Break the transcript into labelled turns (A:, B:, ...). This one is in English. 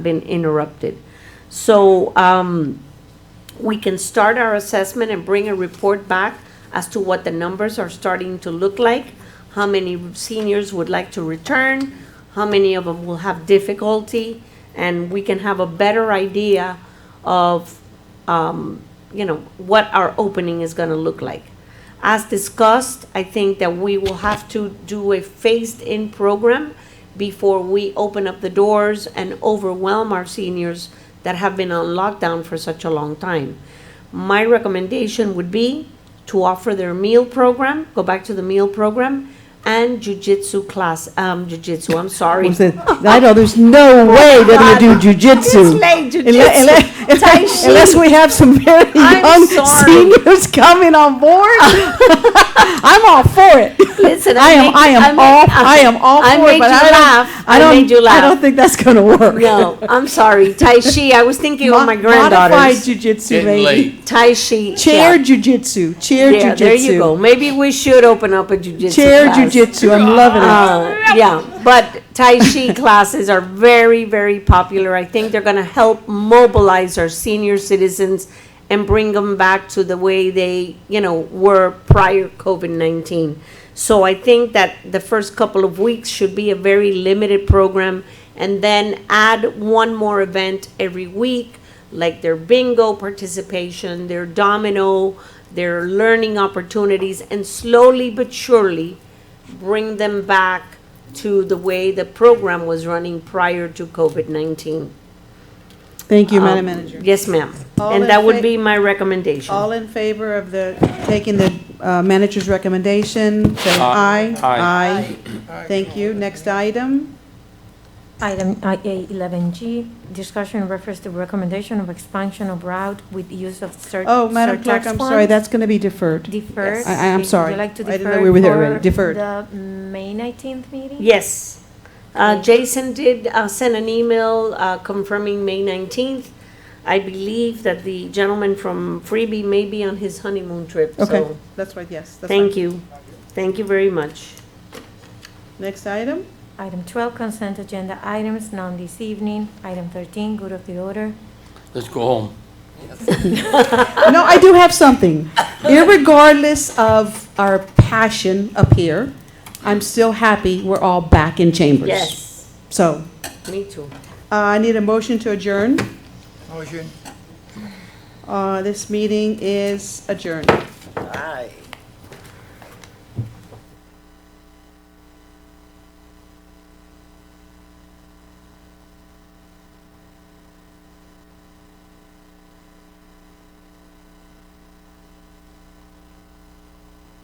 A: been interrupted. So, um, we can start our assessment and bring a report back as to what the numbers are starting to look like, how many seniors would like to return, how many of them will have difficulty, and we can have a better idea of, um, you know, what our opening is gonna look like. As discussed, I think that we will have to do a phased-in program before we open up the doors and overwhelm our seniors that have been on lockdown for such a long time. My recommendation would be to offer their meal program, go back to the meal program, and jujitsu class, um, jujitsu, I'm sorry.
B: I said, I know there's no way they're gonna do jujitsu.
A: It's late,
B: Unle-
A: jujitsu.
B: unle-
A: Tai chi.
B: Unless we have some very
A: I'm
B: young
A: sorry.
B: seniors coming on board. I'm all for it.
A: Listen, I
B: I am,
A: make-
B: I am
A: I
B: all,
A: make-
B: I am all
A: I
B: for
A: made
B: it, but
A: you
B: I
A: laugh.
B: don't,
A: I
B: I
A: made you
B: don't, I
A: laugh.
B: don't think that's gonna work.
A: No, I'm sorry, tai chi, I was thinking of
B: Mo-
A: my
B: Modified
A: granddaughters.
B: jujitsu,
C: Getting
B: maybe.
C: late.
A: Tai chi.
B: Chair
A: yeah.
B: jujitsu, chair
A: Yeah,
B: jujitsu.
A: there you go, maybe we should open up a jujitsu
B: Chair
A: class.
B: jujitsu, I'm loving it.
A: Uh, yeah, but Tai Chi classes are very, very popular. I think they're going to help mobilize our senior citizens and bring them back to the way they, you know, were prior COVID 19. So I think that the first couple of weeks should be a very limited program and then add one more event every week like their bingo participation, their domino, their learning opportunities, and slowly but surely bring them back to the way the program was running prior to COVID 19.
B: Thank you,
A: uh,
B: Madam Manager.
A: Yes, ma'am.
B: All
A: And
B: in
A: that would
B: fa-
A: be my recommendation.
B: All in favor of the, taking the uh, manager's recommendation, say aye.
C: Aye.
B: Aye. Thank you. Next item.
D: Item IA11G, discussion in reference to recommendation of expansion of route with use of sur- surtax
B: Oh, Madam Clerk, I'm sorry,
D: funds.
B: that's going to be deferred.
D: Deferred.
B: I- I am
D: Would you
B: sorry.
D: like to
B: I didn't know
D: defer
B: we were there already.
D: for
B: Deferred.
D: The May 19th meeting?
A: Yes. Uh, Jason did uh, send an email uh, confirming May 19th. I believe that the gentleman from Freebie may be on his honeymoon trip.
B: Okay,
A: So
B: that's right, yes. that's
A: thank
B: fine.
A: you. Thank you very much.
B: Next item.
D: Item 12, consent agenda items, none this evening. Item 13, good of the order.
C: Let's go home.
B: No, I do have something. Irregardless of our passion up here, I'm still happy we're all back in chambers.
A: Yes,
B: So
A: me too.
B: uh, I need a motion to adjourn.
E: Motion.
B: Uh, This meeting is adjourned.